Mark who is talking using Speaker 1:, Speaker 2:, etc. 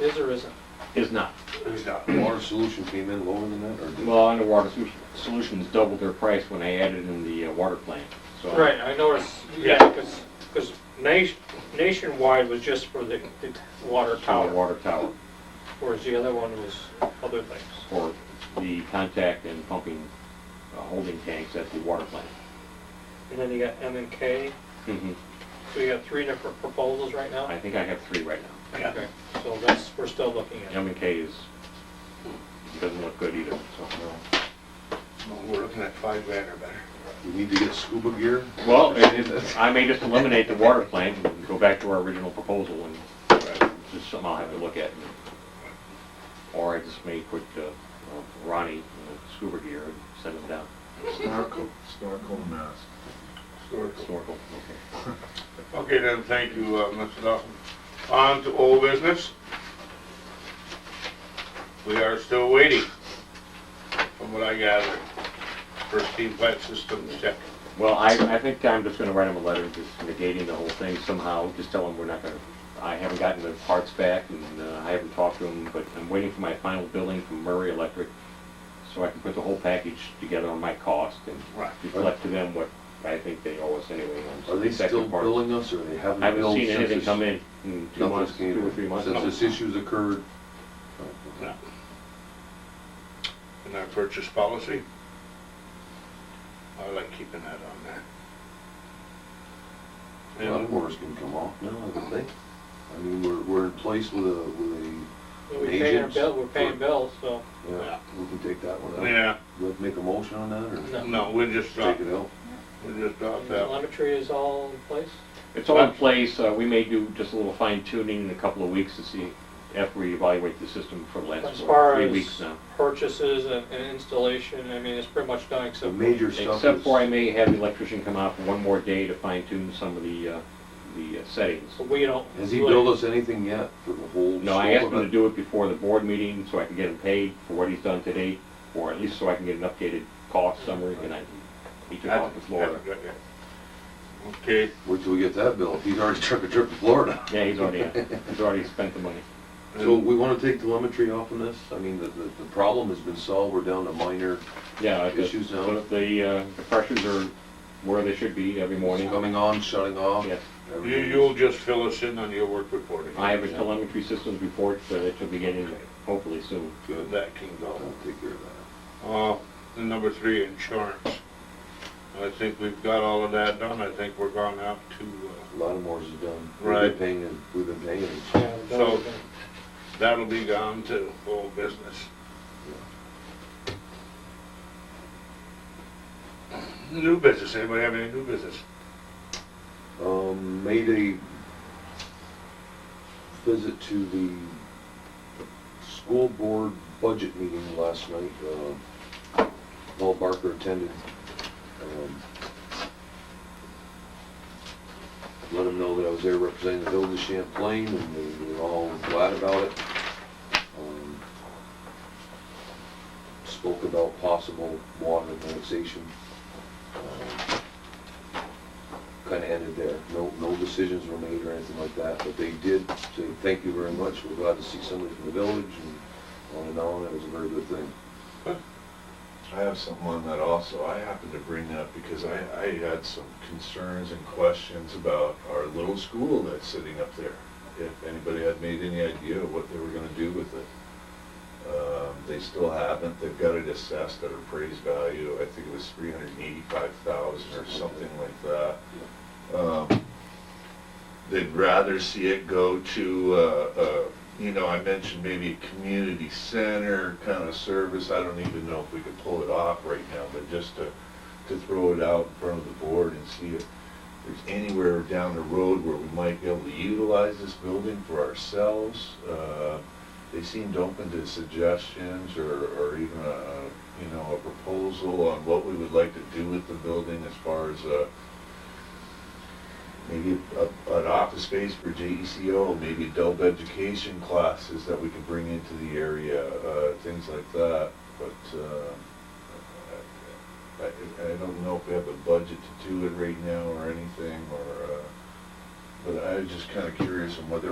Speaker 1: Is or isn't?
Speaker 2: is not.
Speaker 3: Water solution came in lower than that, or did?
Speaker 2: Well, Underwater Solu- Solutions doubled their price when I added in the uh, water plant, so.
Speaker 1: Right, I noticed, yeah,
Speaker 2: Yeah.
Speaker 1: because, because nationwide was just for the the water
Speaker 2: Tower,
Speaker 1: tower,
Speaker 2: water tower,
Speaker 1: whereas the other one was other things.
Speaker 2: for the contact and pumping uh, holding tanks at the water plant.
Speaker 1: And then you got M and K,
Speaker 2: Mhm.
Speaker 1: so you got three different proposals right now?
Speaker 2: I think I have three right now.
Speaker 1: Okay, so that's, we're still looking at.
Speaker 2: M and K is, doesn't look good either, so.
Speaker 4: We're looking at five grand or better.
Speaker 3: We need to get scuba gear?
Speaker 2: Well, it- it- I may just eliminate the water plant and go back to our original proposal and uh, just something I'll have to look at. Or I just may put uh, uh, Ronnie in the scuba gear and send him down.
Speaker 5: Snorkel, snorkel mask.
Speaker 2: Snorkel, okay.
Speaker 4: Okay, then, thank you, uh, Mr. Dawson. On to old business. We are still waiting, from what I gather, for steam plant system check.
Speaker 2: Well, I, I think I'm just gonna write him a letter just negating the whole thing somehow, just tell him we're not gonna, I haven't gotten the parts back and uh, I haven't talked to him, but I'm waiting for my final billing from Murray Electric so I can put the whole package together on my cost and
Speaker 4: Right.
Speaker 2: reflect to them what I think they owe us anyway. on
Speaker 3: Are they
Speaker 2: the second
Speaker 3: still
Speaker 2: part.
Speaker 3: billing us, or they haven't?
Speaker 2: I haven't
Speaker 3: billed
Speaker 2: seen
Speaker 3: since
Speaker 2: anything
Speaker 3: this-
Speaker 2: come in in two
Speaker 3: nothing's
Speaker 2: months,
Speaker 3: came
Speaker 2: two or three months.
Speaker 3: Since this issue's occurred?
Speaker 4: In our purchase policy. I like keeping that on there.
Speaker 3: Lawnmowers can come off now, I would think. I mean, we're, we're in place with a, with a,
Speaker 1: We're paying our
Speaker 3: Agents.
Speaker 1: bill, we're paying bills, so,
Speaker 3: yeah,
Speaker 4: Yeah.
Speaker 3: we can take that one out.
Speaker 4: Yeah,
Speaker 3: Do I make a motion on that, or
Speaker 1: no.
Speaker 4: no, we just dropped,
Speaker 3: take it out?
Speaker 4: we just dropped that.
Speaker 1: Telemetry is all in place?
Speaker 2: It's all in place, uh, we may do just a little fine tuning in a couple of weeks to see after we evaluate the system for the
Speaker 1: As
Speaker 2: last
Speaker 1: far
Speaker 2: what, three
Speaker 1: as
Speaker 2: weeks now.
Speaker 1: purchases and and installation, I mean, it's pretty much done
Speaker 3: The
Speaker 1: except.
Speaker 3: major stuff is.
Speaker 2: Except for I may have the electrician come out for one more day to fine tune some of the, uh, the uh, settings.
Speaker 1: So we don't.
Speaker 3: Has he
Speaker 1: really-
Speaker 3: billed us anything yet for the whole?
Speaker 2: No, I asked
Speaker 3: scope
Speaker 2: him
Speaker 3: of
Speaker 2: to do it before the board meeting so I can get him paid for what he's done today, or at least so I can get an updated cost summary and I, he took off the floor.
Speaker 4: Okay,
Speaker 3: it? Wait till we get that bill, he's already took a trip to Florida.
Speaker 2: Yeah, he's already, he's already spent the money.
Speaker 3: So we wanna take telemetry off on this? I mean, the, the, the problem has been solved, we're down to minor,
Speaker 2: Yeah, the-
Speaker 3: Issues now?
Speaker 2: the- The, uh, the pressures are where they should be every
Speaker 3: it's
Speaker 2: morning.
Speaker 3: coming on, shutting off.
Speaker 2: Yes,
Speaker 4: you,
Speaker 3: everything.
Speaker 4: you'll just fill us in on your work reporting.
Speaker 2: I have a telemetry systems report uh, that you'll be getting hopefully soon.
Speaker 4: Good, that can go.
Speaker 3: I'll take care of that.
Speaker 4: Uh, and number three, insurance. I think we've got all of that done, I think we're gone out to, uh,
Speaker 3: Lawnmowers is done. We've
Speaker 4: Right.
Speaker 3: been paying, it- we've been paying. it.
Speaker 1: Yeah, the
Speaker 4: So-
Speaker 1: bills are-
Speaker 4: uh, that'll be gone to full business. New business, anybody have any new business?
Speaker 3: Um, made a visit to the school board budget meeting last night. Uh, Paul Barker attended. Um, Let him know that I was there representing the village of Champlain and they were all glad about it. Um, Spoke about possible water annexation. Um, kind of ended there. No, no decisions were made or anything like that, but they did say, thank you very much, we're glad to see somebody from the village, and on and on, it was a very good thing.
Speaker 5: I have something on that also. I happened to bring up because I, I had some concerns and questions about our little school that's sitting up there. If anybody had made any idea what they were gonna do with it. Um, they still haven't. They've got it assessed at appraised value. I think it was three hundred and eighty-five thousand or something like that. Um, They'd rather see it go to, uh, uh, you know, I mentioned maybe a community center kind of service, I don't even know if we could pull it off right now, but just to, to throw it out in front of the board and see if there's anywhere down the road where we might be able to utilize this building for ourselves. Uh, They seemed open to suggestions or, or even a, you know, a proposal on what we would like to do with the building as far as, uh, maybe a, an office space for JECO, maybe adult education classes that we could bring into the area, uh, things like that. But, uh, I, I don't know if we have a budget to do it right now or anything, or, uh, but I was just kinda curious on whether